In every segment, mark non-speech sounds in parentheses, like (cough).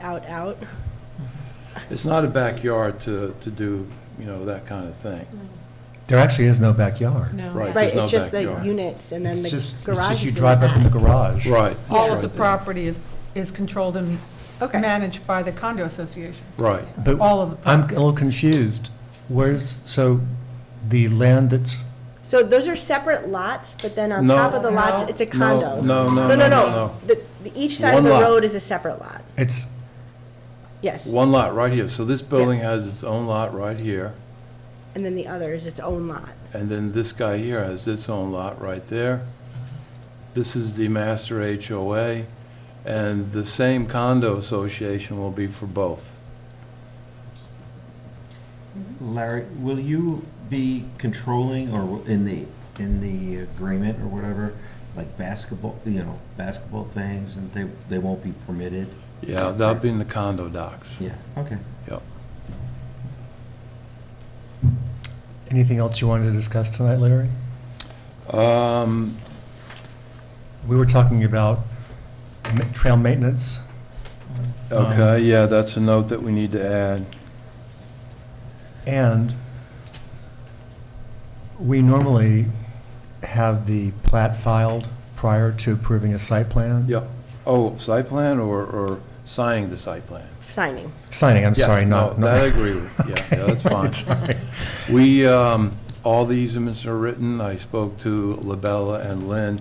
out, out. It's not a backyard to, to do, you know, that kind of thing. There actually is no backyard. No. Right, Right. there's no it's just the backyard. units and It's then the just- it's garage just is you in the drive up in the back. garage. Right. All of Right the there. property is, is controlled and Okay. managed by the condo association. Right. But All of the I'm a little confused. Where's, so the land that's, So those are separate lots, but then on No. top of the No. lots, it's a No, condo. No, no, No, no, no. The, the- each side of One the lot. road is a separate lot. it's, Yes. One lot right here. So this building has its own lot right here, And then the other is its own lot. and then this guy here has its own lot right there. This is the master HOA, and the same condo association will be for both. Larry, will you be controlling or in the, in the agreement or whatever, like basketball, you know, basketball things and they, they won't be permitted? Yeah, that'll be in the condo docs. Yeah, okay. Yep. anything else you wanted to discuss tonight, Larry? Um, We were talking about ma- trail maintenance. okay, yeah, that's a note that we need to add. And we normally have the plat filed prior to approving a site plan. Yep. Oh, site plan or, or signing the site plan? Signing. Signing, I'm Yes, sorry, no, not. not- that I agree with. Yeah, yeah, that's (laughs) Okay, fine. right, sorry. We, um, all the easements are written. I spoke to Labella and Lynn,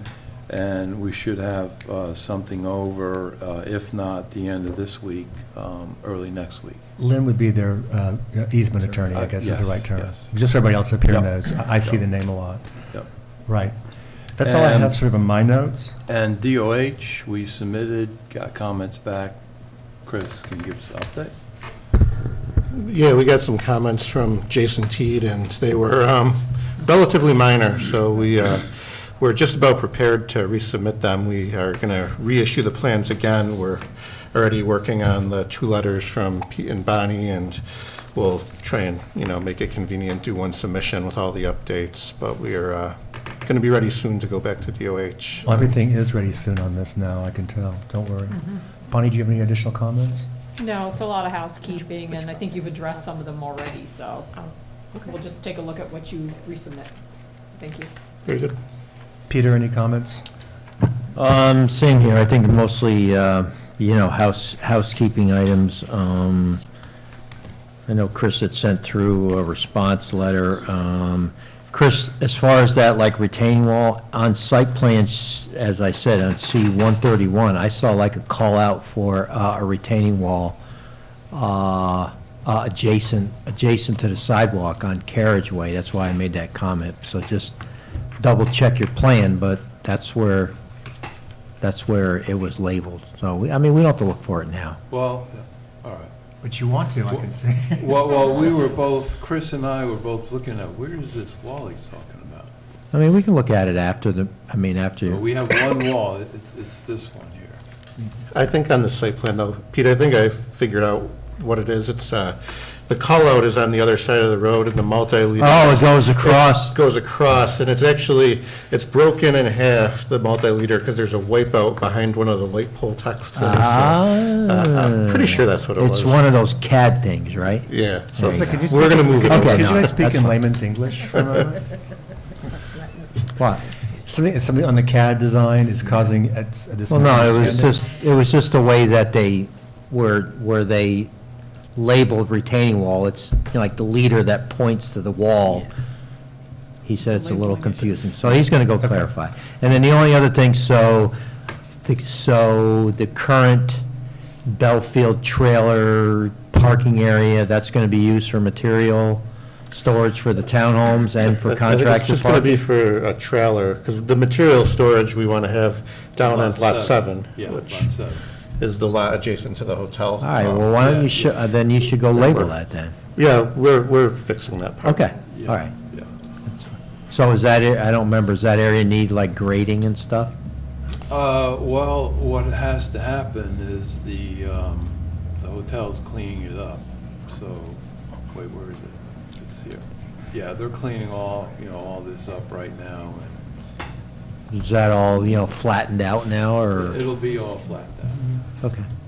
and we should have uh, something over, uh, if not the end of this week, um, early next week. Lynn would be their uh, easement attorney, I Uh, guess is the yes, right term. yes. Just so everybody else up here Yep. knows, I I see Yep. the name a lot. Yep. Right. That's all I And- have sort of in my notes. And DOH, we submitted, got comments back. Chris can give us an update. Yeah, we got some comments from Jason Teed, and they were um, relatively minor, so we, uh, we're just about prepared to resubmit them. We are going to reissue the plans again. We're already working on the two letters from Pete and Bonnie, and we'll try and, you know, make it convenient, do one submission with all the updates, but we are going to be ready soon to go back to DOH. Well, Everything is ready soon on this now, I can tell, don't worry. Bonnie, do you have any additional comments? No, it's a lot of housekeeping, and I think you've addressed some of them already, so Oh, we'll just take a look at what you resubmit. Thank you. Very good. Peter, any comments? Um, same here, I think mostly, uh, you know, house, housekeeping items, um, I know Chris had sent through a response letter, um, Chris, as far as that, like retaining wall, on site plans, as I said, on C one thirty-one, I saw like a call out for, uh, a retaining wall, uh, uh, adjacent, adjacent to the sidewalk on carriageway, that's why I made that comment, so just double check your plan, but that's where that's where it was labeled. So, we- I mean, we don't have to look for it now. Well, all right. But you want to, I can (laughs) see. Well, well, we were both, Chris and I were both looking at, where is this wall he's talking about? I mean, we can look at it after the, I mean, after. So we have one wall, it's, it's this one here. I think on the site plan, though, Pete, I think I figured out what it is. It's, uh, the call-out is on the other side of the road, and the multi-lead. Oh, it goes across. It Goes across, and it's actually, it's broken in half, the multi-liter, because there's a wipeout behind one of the light pole tucks. to Ah. the side. Uh, I'm pretty sure that's what it was. It's one of those CAD things, right? Yeah, so There you Could you we're speak- going to move it. Okay, over. Could you no, guys speak that's in fine. layman's English for a moment? What? (laughs) Something, something on the CAD design is causing at s- at this. Well, no, it moment- was just, it was just the way that they were, where they labeled retaining wall. It's you know, like the leader that points to the wall. He said it's a little confusing, so he's going to go clarify. And then the only other thing, so, the- so the current Belfield trailer parking area, that's going to be used for material storage for the townhomes and I- for I think contractor It's just going to be parking? for a trailer, because the material storage we want to have down on Oh, Lot 7, Yeah, lot which seven. is the lot adjacent to the hotel. All right, well, why don't Yeah. you, sho- uh, then you should go label that then. Yeah, we're, we're fixing that part. Okay, Yeah, all right. Yeah. So is that, ar- I don't remember, does that area need like grading and stuff? Uh, well, what has to happen is the, um, the hotel's cleaning it up, so, wait, where is it? It's here. Yeah, they're cleaning all, you know, all this up right now, Is that all, you know, flattened out now, and or? it'll be all flattened out. Okay,